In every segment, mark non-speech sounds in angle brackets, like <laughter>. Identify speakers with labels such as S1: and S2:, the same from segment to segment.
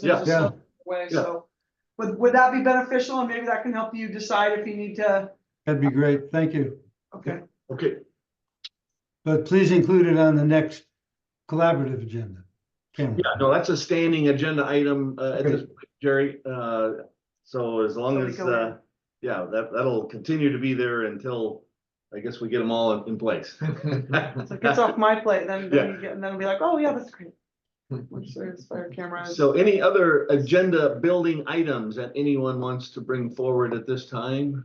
S1: This
S2: Yeah.
S1: is
S3: Yeah.
S1: a way,
S2: Yeah.
S1: so. Would, would that be beneficial? And maybe that can help you decide if you need to,
S3: That'd be great. Thank you.
S1: okay,
S2: Okay,
S3: But please include it on the next collaborative agenda. Cameron.
S2: yeah, no, that's a standing agenda item, uh, at
S3: Okay.
S2: this, point, Jerry, uh, so as long
S1: Let me
S2: as,
S1: go
S2: uh, yeah, that, that'll continue to be there until, I guess we get them all in- in place.
S1: it's like, it's off my plate, then, then
S2: Yeah.
S1: you get, and then it'll be like, oh, yeah, that's great. Which is fire cameras.
S2: So any other agenda building items that anyone wants to bring forward at this time?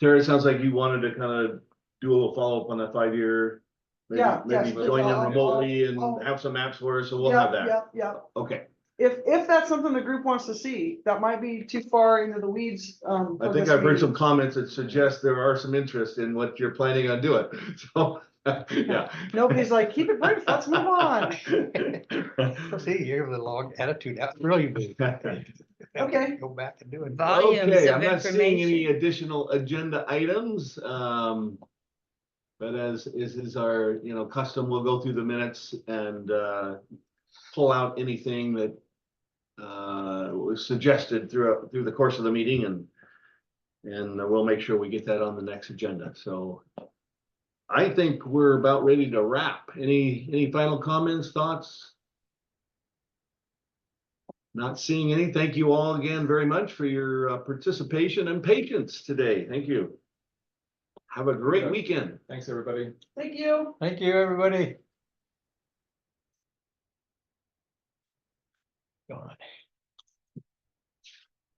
S2: Terry, it sounds like you wanted to kind of do a little follow-up on that five-year. maybe-
S1: Yeah, yes,
S2: Maybe
S1: please.
S2: join them
S1: I'll- I'll-
S2: remotely and
S1: I'll-
S2: have some maps for us, so we'll have that.
S1: Oh. Yeah, yeah,
S2: Okay,
S1: if, if that's something the group wants to see, that might be too far into the weeds, um.
S2: I
S1: for
S2: think
S1: this
S2: I've heard
S1: meeting.
S2: some comments that suggest there are some interest in what you're planning on doing, <laughs> so, yeah.
S1: Nobody's like, keep it brief, let's move
S2: <laughs>
S1: on.
S4: <laughs> See, you have the long attitude, that's really good.
S2: <laughs>
S1: Okay.
S4: Go back and do it.
S2: Okay, I'm not seeing any additional agenda items, um. But as is is our, you know, custom, we'll go through the minutes and uh pull out anything that. Uh, was suggested throughout, through the course of the meeting and. And we'll make sure we get that on the next agenda, so. I think we're about ready to wrap. Any, any final comments, thoughts? Not seeing any. Thank you all again very much for your uh, participation and patience today. Thank you. Have a great
S5: Yeah.
S2: weekend.
S5: Thanks, everybody.
S1: Thank you.
S4: Thank you, everybody.